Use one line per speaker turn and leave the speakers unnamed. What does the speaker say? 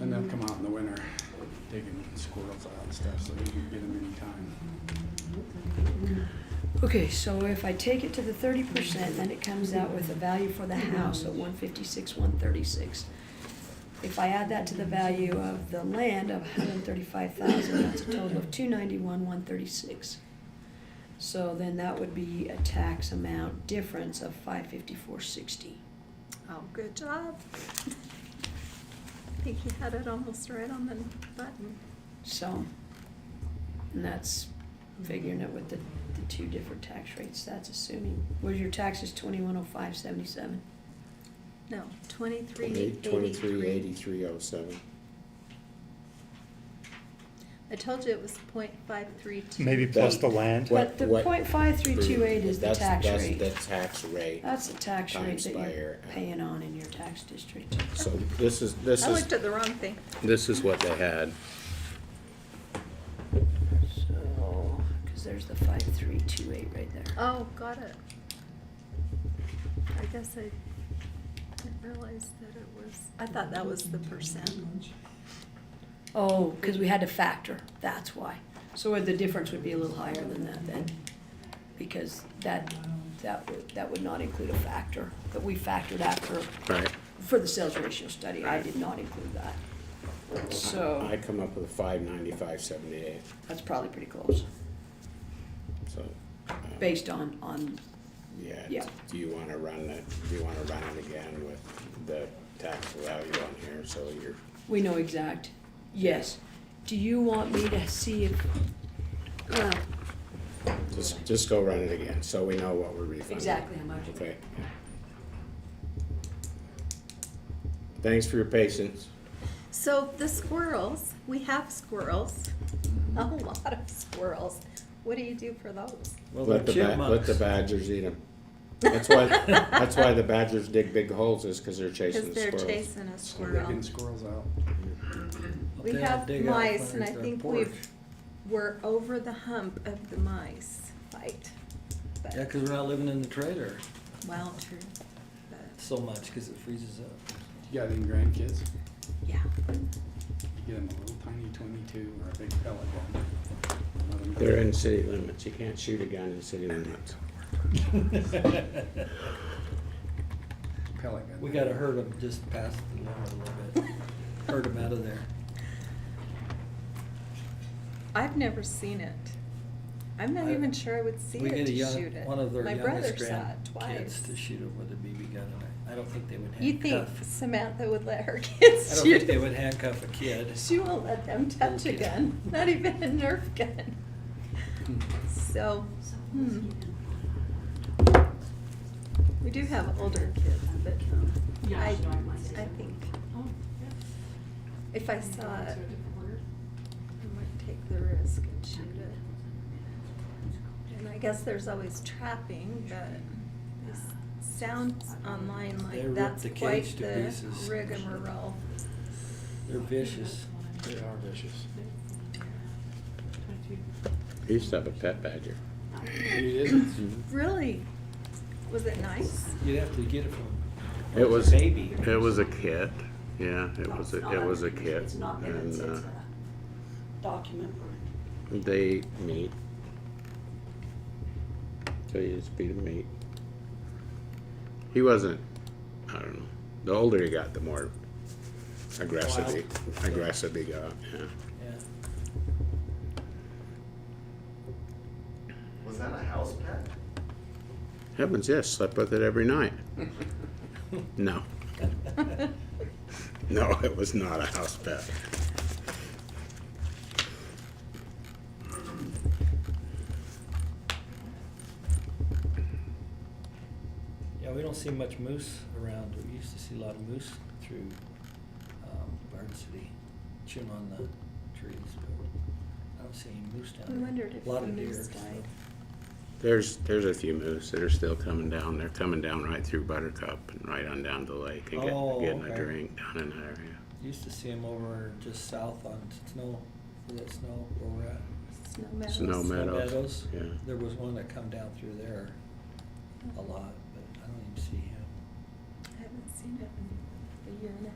And they'll come out in the winter digging squirrels out and stuff, so you can get them anytime.
Okay, so if I take it to the thirty percent, then it comes out with the value for the house at one fifty-six, one thirty-six. If I add that to the value of the land of hundred and thirty-five thousand, that's a total of two ninety-one, one thirty-six. So then that would be a tax amount difference of five fifty-four, sixty.
Oh, good job. I think you had it almost right on the button.
So, and that's figuring it with the, the two different tax rates, that's assuming, was your taxes twenty-one oh five, seventy-seven?
No, twenty-three
Twenty-three
eighty-three.
eighty-three oh seven.
I told you it was point five three two.
Maybe plus the
That-
land.
But
What-
the point five three two eight is the
That's-
tax
that's
rate. Uh,
the tax rate.
That's the tax rate
times
that
by
you're
your-
paying on in your tax district.
So this is, this
I
is,
looked at the wrong thing.
This is what they had.
So, cause there's the five three two eight right there.
Oh, got it. I guess I didn't realize that it was, I thought that was the percent.
Oh, cause we had to factor, that's why. So the difference would be a little higher than that then, because that, that would, that would not include a factor, that we factored after,
Right.
for the sales ratio study, I did not include that.
I
So,
come up with five ninety-five seventy-eight,
that's probably pretty close,
so. uh,
based on, on,
Yeah,
yeah.
do you wanna run it, do you wanna run it again with the tax value on here, so you're,
We know exact, yes. Do you want me to see if, uh,
just, just go run it again, so we know what we're refunding.
exactly how much?
Okay. Thanks for your patience.
So the squirrels, we have squirrels, a lot of squirrels. What do you do for those?
Well,
Let the,
they're
ba- let
chipmunks.
the badgers eat them. That's why, that's why the badgers dig big holes is because they're chasing
Cause
the
they're
squirrels.
chasing a
So
squirrel.
digging squirrels out.
Up
We
there, I'll
have
dig out
mice
find
and I
their
think
porch.
we've, we're over the hump of the mice fight.
Yeah,
But,
because we're not living in the trailer
well, true. But,
so much because it freezes up.
You got any grandkids?
Yeah.
You get them a little tiny twenty-two or a big pellet gun. Let 'em go.
They're in city limits. You can't shoot a gun in city limits.
Pellet gun.
We gotta herd them just past the limit a little bit. Herd them out of there.
I've never seen it. I'm not
I-
even sure I would see
We
it
get a
to
young,
shoot it.
one of their
My brother
youngest
saw it
grandkids
twice.
to shoot it with a BB gun. and I- I don't think they would
You'd think
handcuff.
Samantha would let her
I
kids
don't
shoot
think they
it.
would handcuff a kid.
She won't let them touch a
Okay.
gun, not even a Nerf gun. So, hmm. We do have older kids, but I, I think if I saw it, I might take the risk and shoot it. And I guess there's always trapping, but this sounds online
They
like
rip
that's
the
quite
cage to
the
pieces.
rigmarole.
They're vicious.
They are vicious.
I used to have a pet badger.
You didn't?
Really, was it nice?
You'd have to get it from
It was,
baby.
it was a kit. Yeah, it was, a- it was a
It's
kit.
not, it's,
And uh,
it's a document.
They eat meat. So you just feed them meat. He wasn't, I don't know. The older he got, the more aggressive he, aggressive he got, yeah.
Yeah.
Was that a house pet?
Heavens, yes, slept with it every night. No. No, it was not a house pet.
Yeah, we don't see much moose around. We used to see a lot of moose through um, Barn City, chewing on the trees, but I don't see any moose down
We
there.
wondered if
a lot
the
of deer.
moose
so-
died.
There's, there's a few moose that are still coming down. They're coming down right through Buttercup and right on down to the lake and
Oh,
get- getting a
okay.
drink down in that area.
Used to see them over just south on Snow, is that Snow where we're at?
Snow meadows.
Snow
Snow
Meadows,
Meadows.
yeah.
There was one that come down through there a lot, but I don't even see him.
I haven't seen it in a year and a half.